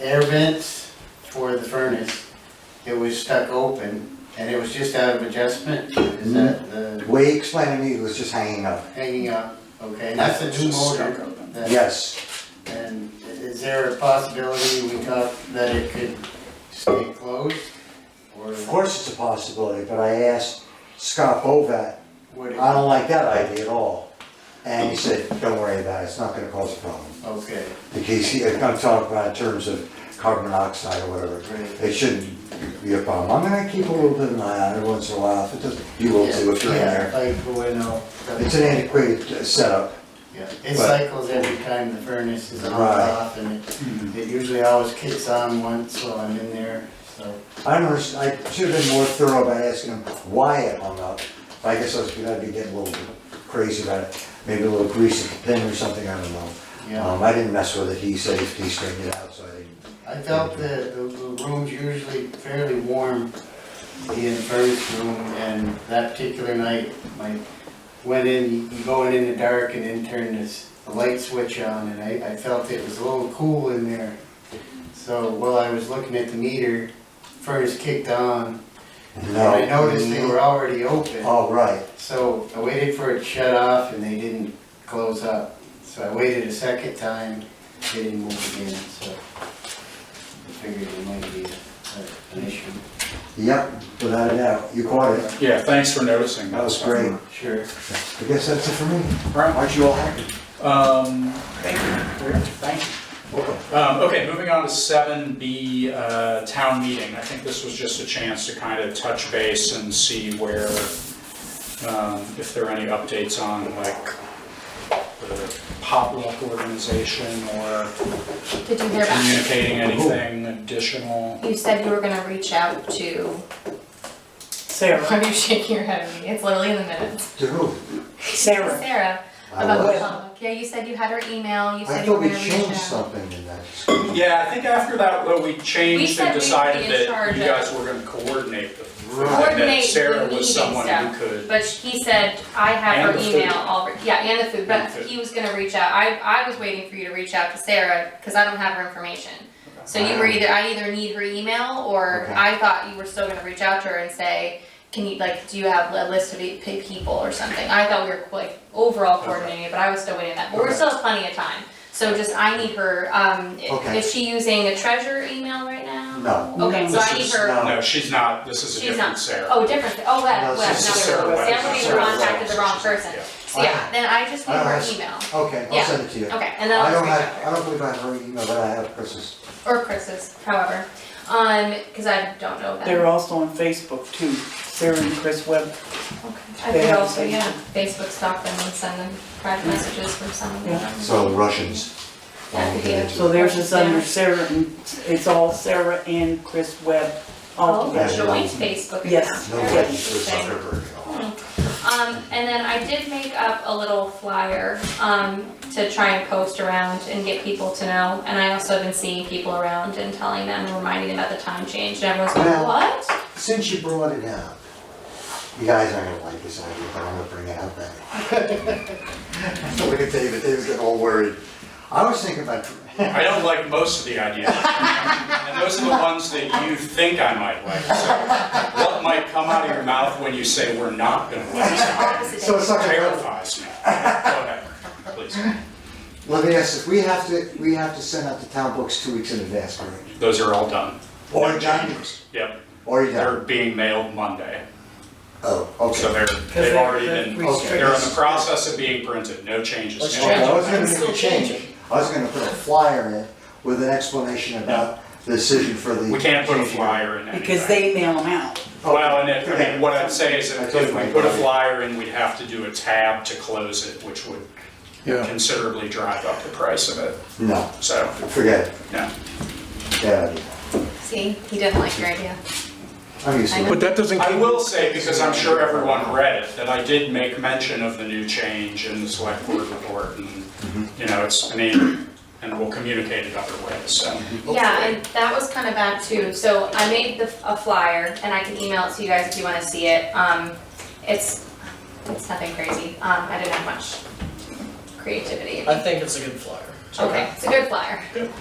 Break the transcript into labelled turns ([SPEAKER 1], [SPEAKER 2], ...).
[SPEAKER 1] air vents for the furnace, it was stuck open, and it was just out of adjustment, is
[SPEAKER 2] Mm-hmm.
[SPEAKER 1] that the
[SPEAKER 2] The way he explained to me, it was just hanging up.
[SPEAKER 1] hanging up? Okay, and that's a new motor. that-
[SPEAKER 2] Yes,
[SPEAKER 1] And is there a possibility we thought that it could stay closed? Or
[SPEAKER 2] of course it's a possibility, but I asked Scott Bovat,
[SPEAKER 1] would
[SPEAKER 2] I
[SPEAKER 1] it,
[SPEAKER 2] don't like that idea at all. And he said, don't worry about it, it's not gonna cause a problem.
[SPEAKER 1] okay,
[SPEAKER 2] Because he, I'm talking about in terms of carbon monoxide or whatever,
[SPEAKER 1] great.
[SPEAKER 2] it shouldn't be a problem. I'm gonna keep a little bit of an eye on it once in a while, if it doesn't, you will too if you're in
[SPEAKER 1] Yeah,
[SPEAKER 2] there.
[SPEAKER 1] Like, well, no.
[SPEAKER 2] It's an antiquated uh, setup,
[SPEAKER 1] Yeah, it
[SPEAKER 2] But-
[SPEAKER 1] cycles every time the furnace is on and
[SPEAKER 2] Right.
[SPEAKER 1] off, and it- it usually always kicks on once while I'm in there, so.
[SPEAKER 2] I don't understand, I should have been more thorough by asking him why it hung up. I guess I was gonna be getting a little crazy about it, maybe a little grease at the pin or something, I don't know.
[SPEAKER 1] Yeah.
[SPEAKER 2] Um, I didn't mess with it, he said he straightened it out, so I didn't.
[SPEAKER 1] I felt that the the room's usually fairly warm, the furnace room, and that particular night, my, went in, you go in in the dark and then turn this, the light switch on, and I, I felt it was a little cool in there. So while I was looking at the meter, furnace kicked on, and
[SPEAKER 2] No.
[SPEAKER 1] I noticed they were already open.
[SPEAKER 2] Oh, right,
[SPEAKER 1] So I waited for it to shut off and they didn't close up. So I waited a second time, they didn't move again, so I figured it might be a- an issue.
[SPEAKER 2] yep, without a doubt, you caught it.
[SPEAKER 3] Yeah, thanks for noticing.
[SPEAKER 2] That was great.
[SPEAKER 1] Sure.
[SPEAKER 2] I guess that's it for me.
[SPEAKER 3] Alright,
[SPEAKER 2] Aren't you all happy?
[SPEAKER 3] um, thank you, thank you. Um, okay, moving on to seven B, uh, town meeting. I think this was just a chance to kind of touch base and see where, um, if there are any updates on like the potluck organization or
[SPEAKER 4] Did you hear back?
[SPEAKER 3] communicating anything additional.
[SPEAKER 4] You said you were gonna reach out to,
[SPEAKER 5] Sarah,
[SPEAKER 4] why are you shaking your head at me? It's literally in the minutes.
[SPEAKER 2] To who?
[SPEAKER 5] Sarah,
[SPEAKER 4] Sarah,
[SPEAKER 2] I
[SPEAKER 4] about
[SPEAKER 2] was.
[SPEAKER 4] the potluck. Yeah, you said you had her email,
[SPEAKER 2] I
[SPEAKER 4] you said you
[SPEAKER 2] thought
[SPEAKER 4] were
[SPEAKER 2] we
[SPEAKER 4] gonna reach out.
[SPEAKER 2] changed something in that.
[SPEAKER 3] Yeah, I think after that, though, we
[SPEAKER 4] We
[SPEAKER 3] changed
[SPEAKER 4] said
[SPEAKER 3] and
[SPEAKER 4] we would be
[SPEAKER 3] decided
[SPEAKER 4] in
[SPEAKER 3] that
[SPEAKER 4] charge
[SPEAKER 3] you
[SPEAKER 4] of-
[SPEAKER 3] guys were gonna coordinate the thing, that
[SPEAKER 4] Coordinate the
[SPEAKER 3] Sarah
[SPEAKER 4] meeting
[SPEAKER 3] was someone
[SPEAKER 4] stuff.
[SPEAKER 3] who could.
[SPEAKER 4] But he said, I have
[SPEAKER 3] And
[SPEAKER 4] her
[SPEAKER 3] the
[SPEAKER 4] email
[SPEAKER 3] food.
[SPEAKER 4] already, yeah, and the food,
[SPEAKER 3] And
[SPEAKER 4] but
[SPEAKER 3] the food.
[SPEAKER 4] he was gonna reach out, I, I was waiting for you to reach out to Sarah, cause I don't have her information. So you were
[SPEAKER 3] Um,
[SPEAKER 2] Okay.
[SPEAKER 4] either, I either need her email, or
[SPEAKER 2] Okay.
[SPEAKER 4] I thought you were still gonna reach out to her and say, can you, like, do you have a list of eight pe- people or something? I thought we were like overall coordinating, it, but I was still waiting on that, but we're
[SPEAKER 3] Okay.
[SPEAKER 4] still have plenty of time. So just, I need her, um, i-
[SPEAKER 2] Okay.
[SPEAKER 4] is she using a treasure email right now?
[SPEAKER 2] No.
[SPEAKER 4] Okay, so I
[SPEAKER 3] This
[SPEAKER 4] need
[SPEAKER 3] is-
[SPEAKER 4] her.
[SPEAKER 2] no.
[SPEAKER 3] No, she's not, this is a
[SPEAKER 4] She's
[SPEAKER 3] different
[SPEAKER 4] not-
[SPEAKER 3] Sarah.
[SPEAKER 4] Oh, different, oh,
[SPEAKER 2] No,
[SPEAKER 4] Web, Web,
[SPEAKER 2] it's
[SPEAKER 4] not
[SPEAKER 3] This is
[SPEAKER 4] Web,
[SPEAKER 3] Sarah
[SPEAKER 5] Webb.
[SPEAKER 4] Sam
[SPEAKER 3] Webb.
[SPEAKER 2] This
[SPEAKER 4] would be
[SPEAKER 2] is Sarah
[SPEAKER 4] contacted the wrong
[SPEAKER 3] She's-
[SPEAKER 4] person.
[SPEAKER 3] yeah.
[SPEAKER 4] So yeah, then I just need
[SPEAKER 2] I don't
[SPEAKER 4] her
[SPEAKER 2] have-
[SPEAKER 4] email,
[SPEAKER 2] Okay, I'll
[SPEAKER 4] Yeah.
[SPEAKER 2] send it to you.
[SPEAKER 4] okay, and then
[SPEAKER 2] I
[SPEAKER 4] I'll
[SPEAKER 2] don't
[SPEAKER 4] just
[SPEAKER 2] have, I don't believe I have her email, but I have Chris's.
[SPEAKER 4] or Chris's, however, um, cause I don't know them.
[SPEAKER 5] they're also on Facebook too, Sarah and Chris Webb.
[SPEAKER 4] Okay. I
[SPEAKER 5] they
[SPEAKER 4] could
[SPEAKER 5] have
[SPEAKER 4] also,
[SPEAKER 5] Facebook.
[SPEAKER 4] yeah, Facebook stalk them and send them private messages from some of
[SPEAKER 5] Yeah.
[SPEAKER 4] them.
[SPEAKER 2] So Russians.
[SPEAKER 4] That could be it.
[SPEAKER 5] So theirs is under Sarah and, it's all Sarah and Chris Webb all
[SPEAKER 4] Oh,
[SPEAKER 2] Yeah.
[SPEAKER 5] together.
[SPEAKER 4] joint Facebook account.
[SPEAKER 5] Yes.
[SPEAKER 2] No
[SPEAKER 4] Very
[SPEAKER 2] way, Chris
[SPEAKER 4] interesting.
[SPEAKER 2] Zuckerberg at all.
[SPEAKER 4] Um, and then I did make up a little flyer, um, to try and post around and get people to know. And I also have been seeing people around and telling them, and reminding them about the time change, and everyone's
[SPEAKER 2] Well-
[SPEAKER 4] going, what?
[SPEAKER 2] Since you brought it up, you guys aren't gonna like this idea, but I'm gonna bring it up anyway. Look at David, David's getting all worried. I was thinking about,
[SPEAKER 3] I don't like most of the ideas. And those are the ones that you think I might like. So What might come out of your mouth when you say we're not gonna like something
[SPEAKER 2] so it's not gonna work.
[SPEAKER 3] terrifies me. Go ahead, please.
[SPEAKER 2] Let me ask this, we have to, we have to send out the town books two weeks in advance, correct?
[SPEAKER 3] Those are all done.
[SPEAKER 2] Or
[SPEAKER 3] No
[SPEAKER 2] done.
[SPEAKER 3] changes. Yep,
[SPEAKER 2] Or you
[SPEAKER 3] they're
[SPEAKER 2] don't?
[SPEAKER 3] being mailed Monday.
[SPEAKER 2] Oh,
[SPEAKER 3] So
[SPEAKER 2] okay.
[SPEAKER 3] they're, they've already been,
[SPEAKER 2] Okay.
[SPEAKER 3] they're in the process of being printed, no changes.
[SPEAKER 6] Let's
[SPEAKER 2] Okay, I was gonna
[SPEAKER 6] Still
[SPEAKER 2] make a change,
[SPEAKER 6] changing.
[SPEAKER 2] I was gonna put a flyer in with an explanation about the decision for the.
[SPEAKER 3] We can't put a
[SPEAKER 2] changing.
[SPEAKER 3] flyer in anything.
[SPEAKER 5] Because they mail them out.
[SPEAKER 3] Well, and it, I
[SPEAKER 2] Okay.
[SPEAKER 3] mean, what I'd say is if
[SPEAKER 2] Okay.
[SPEAKER 3] if we put a flyer in, we'd have to do a tab to close it, which would considerably drive up the price of it,
[SPEAKER 2] No,
[SPEAKER 3] so,
[SPEAKER 2] forget uh, it,
[SPEAKER 3] yeah.
[SPEAKER 2] bad idea.
[SPEAKER 4] See, he didn't like your idea.
[SPEAKER 2] I'm used to
[SPEAKER 4] I
[SPEAKER 2] it.
[SPEAKER 4] know.
[SPEAKER 7] But that doesn't.
[SPEAKER 3] I will say, because I'm sure everyone read it, that I did make mention of the new change in the select board report and,
[SPEAKER 2] Mm-hmm.
[SPEAKER 3] you know, it's, I mean, and we'll communicate it other ways, so.
[SPEAKER 4] Yeah, and that was kind of bad too, so I made the, a flyer, and I can email it to you guys if you wanna see it, um, it's, it's nothing crazy, um, I didn't have much creativity.
[SPEAKER 6] I think it's a good flyer.
[SPEAKER 4] Okay, it's a good flyer.
[SPEAKER 3] Good.